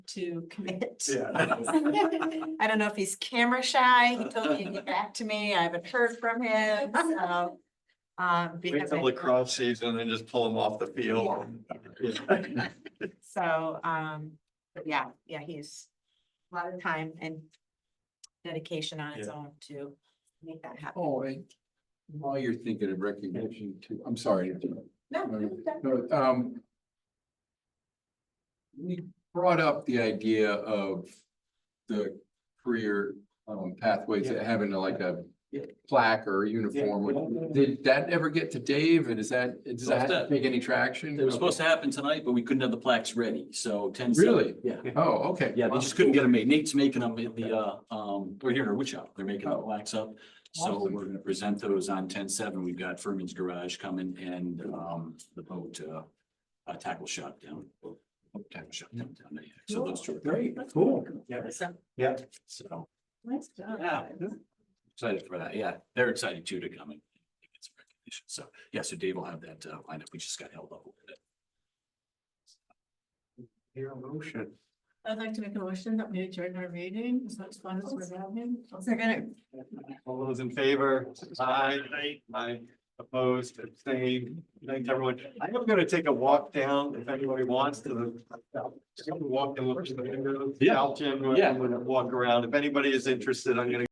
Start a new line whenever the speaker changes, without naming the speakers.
to commit.
Yeah.
I don't know if he's camera shy. He told me to get back to me. I haven't heard from him, so. Um. we
Wait till
haven't-
lacrosse season and just pull them off the field. Yeah.
So, um, but yeah, yeah, he's a lot of time and dedication on his
Yeah.
own to make that happen.
Oh, and while you're thinking of recognition too, I'm sorry. to interrupt.
No, no, no.
No, um. We brought up the idea of the career um pathways that having like a
Yeah.
plaque or a uniform. Did that ever get to Dave and is that, does that make any traction?
It was supposed to happen tonight, but we couldn't have the plaques ready, so ten.
Really?
Yeah,
Oh, okay.
yeah, they just couldn't get them made. Nate's making them at the, uh, um, we're here in our wood shop. They're making the plaques up. So
Awesome.
we're gonna present those on ten seven. We've got Furman's Garage coming and, um, the boat, uh, uh, tackle shop down. boat Tackle shop down, down there. So those two. are
Great, cool. Yeah.
So,
Yeah.
So
Oh,
nice job.
Yeah. excited for that. Yeah, they're excited too to come and get some recognition. So, yeah, so Dave will have that, uh, lineup. We just got held up. a little bit.
Your motion.
I'd like to make a motion that we adjourn our meeting as much fun
Oh,
as we're having.
Second.
All those in favor? Aye. Aye. Opposed, abstained. Thanks, everyone. I am gonna take a walk down if anybody wants to the. Just gonna walk and look at the windows.
Yeah.
Out, Jim, and
Yeah.
walk around. If anybody is interested, I'm gonna